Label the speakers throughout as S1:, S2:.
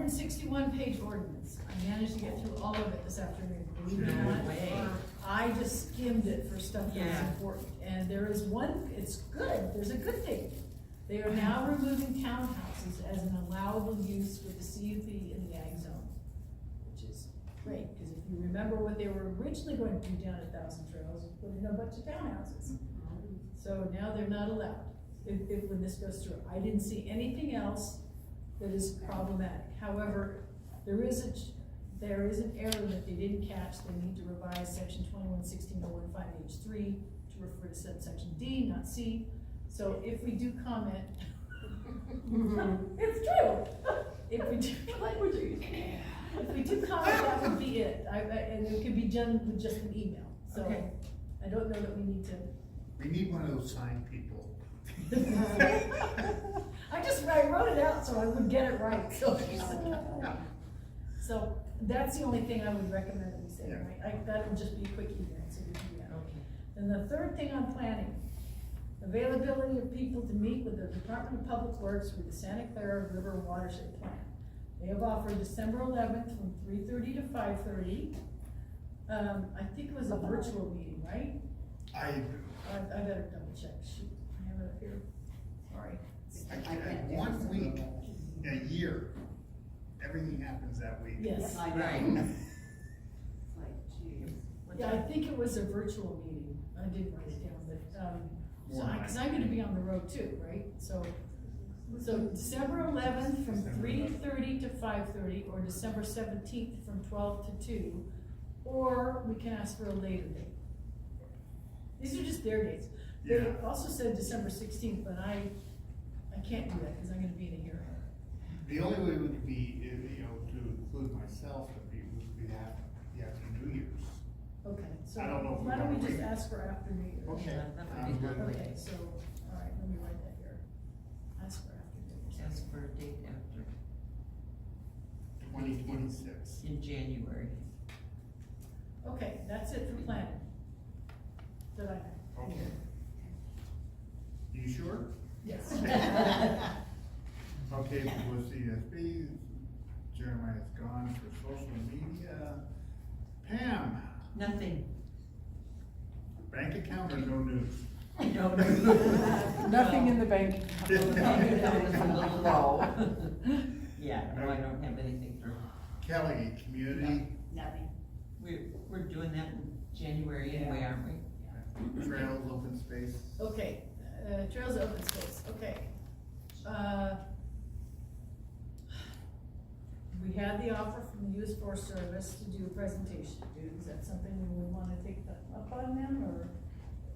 S1: and sixty-one page ordinance. I managed to get through all of it this afternoon, believe it or
S2: No
S1: not.
S2: way.
S1: I just skimmed it for stuff that was
S2: Yeah.
S1: important, and there is one, it's good, there's a good thing. They are now removing townhouses as an allowable use with the CUP in the ag zone, which is great, because if you remember what they were originally going to do down at Thousand Trails, put in a bunch of townhouses. So now they're not allowed, if, if, when this goes through. I didn't see anything else that is problematic. However, there is a, ch- there is an error that they didn't catch. They need to revise section twenty-one sixteen oh one five H three to refer to subsection D, not C. So if we do comment, it's true. If we do, language are you using? If we do comment, that would be it. I, I, and it could be done with just an email, so
S2: Okay.
S1: I don't know that we need to
S3: We need one of those sign people.
S1: I just, I wrote it out so I would get it right. So So that's the only thing I would recommend that we say,
S3: Yeah.
S1: right? Like, that would just be a quick email, so we can do that. And the third thing on planning, availability of people to meet with the Department of Public Works with the Santa Clara River Watershed Plan. They have offered December eleventh from three thirty to five thirty. Um, I think it was a virtual meeting, right?
S3: I,
S1: I, I better double check, shoot, I have it up here, sorry.
S3: I can't, one week, a year, everything happens that week.
S1: Yes.
S4: I know.
S3: Right.
S4: It's like, geez.
S1: Yeah, I think it was a virtual meeting, I did write it down, but, um, so I, cause I'm gonna be on the road too, right? So, so December eleventh from three thirty to five thirty, or December seventeenth from twelve to two, or we can ask for a later date. These are just their dates. They
S3: Yeah.
S1: also said December sixteenth, but I, I can't do that, cause I'm gonna be in a hearing.
S3: The only way would be, if, you know, to include myself, would be, would be after, after New Year's.
S1: Okay, so
S3: I don't know if we
S1: why don't we
S3: wanna
S1: just
S3: wait.
S1: ask for after New Year's?
S3: Okay.
S2: Yeah, that would be
S3: I'm
S2: good.
S1: Okay, so, all right, let me write that here. Ask for after dinner.
S2: Ask for a date after,
S3: Twenty twenty-six.
S2: in January.
S1: Okay, that's it for planning. Did I?
S3: Okay. You sure?
S1: Yes.
S3: Okay, with CSB, Jeremiah's gone for social media. Pam,
S2: Nothing.
S3: bank account or no news?
S2: No.
S5: Nothing in the bank.
S2: Maybe that was a little low. Yeah, no, I don't have anything for,
S3: Kelly, community
S4: Nothing.
S2: we're, we're doing that in January anyway, aren't we?
S3: trails, open space.
S1: Okay, uh, trails open space, okay. Uh, We had the offer from the US Forest Service to do a presentation, is that something we would wanna take them up on them, or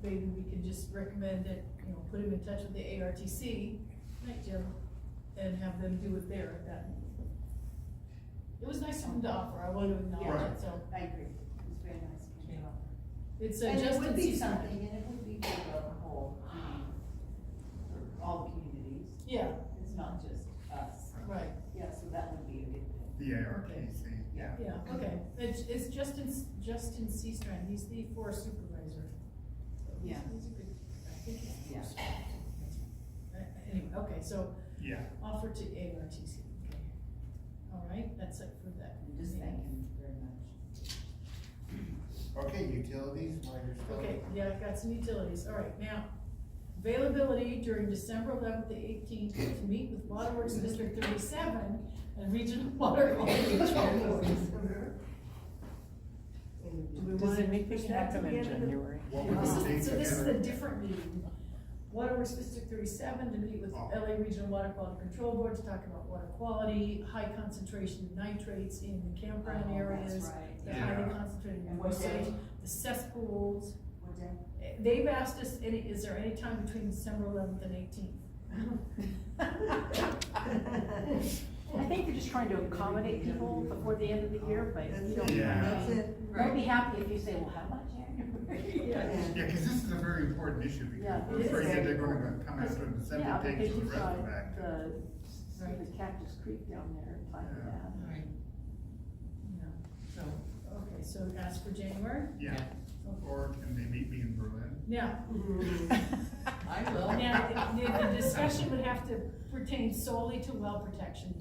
S1: maybe we could just recommend that, you know, put them in touch with the ARTC, right, Jim, and have them do it there at that meeting. It was nice of them to offer, I want to acknowledge it, so,
S4: I agree. It's very nice. of you.
S1: it's a
S4: And
S1: just
S4: it
S1: in
S4: would be
S1: season.
S4: something, and it would be good for the whole, um, for all the communities.
S1: Yeah,
S4: It's not just us.
S1: right.
S4: Yeah, so that would be a good thing.
S3: The ARPC, yeah.
S1: Yeah, okay, it's, it's Justin, Justin Seastrand, he's the forest supervisor. So he's-
S4: Yeah.
S1: He's a good, I think he's.
S4: Yeah.
S1: Uh, Anyway, okay, so
S3: Yeah.
S1: offer to ARTC, okay. All right, that's it for that.
S4: And Just thank him very much.
S3: Okay, utilities, while you're still.
S1: Okay, yeah, I've got some utilities, all right, now, availability during December eleventh to eighteenth to meet with Waterworks District thirty-seven and Regional Water Quality Control Board. Do we wanna
S5: Does
S1: push
S5: anything
S1: that to
S5: happen
S1: the
S5: in
S1: end of the-
S5: January?
S3: What were
S1: This
S3: the
S1: is-
S3: dates
S1: So this is a
S3: again?
S1: different meeting. Water Works District thirty-seven to meet with
S3: Oh.
S1: LA Regional Water Quality Control Board to talk about water quality, high concentration of nitrates in the campground
S4: Oh,
S1: areas.
S4: that's right.
S1: The highly
S3: Yeah.
S1: concentrated
S4: And what
S1: waste,
S4: day?
S1: the cesspools.
S4: What day?
S1: Eh, They've asked us, any, is there any time between December eleventh and eighteenth?
S5: I think they're just trying to accommodate people before the end of the year, but you don't,
S3: Yeah.
S5: I
S3: That's
S5: mean, they'll be happy if you say, well, how about January?
S3: Yeah, cause this is a very important issue, because
S5: Yeah,
S3: we're
S1: it is
S3: afraid that
S1: very
S3: they're gonna come after the
S5: Yeah,
S3: separate
S5: because
S3: dates of
S5: you
S3: the rest
S5: saw
S3: of the back.
S5: the,
S1: Right.
S5: the Cactus Creek down there, and like
S3: Yeah.
S5: that.
S2: All right,
S1: No.
S2: so,
S1: Okay, so ask for January?
S3: Yeah, or can they meet me in Berlin?
S1: Now,
S2: I will.
S1: now, the, the discussion would have to pertain solely to well protection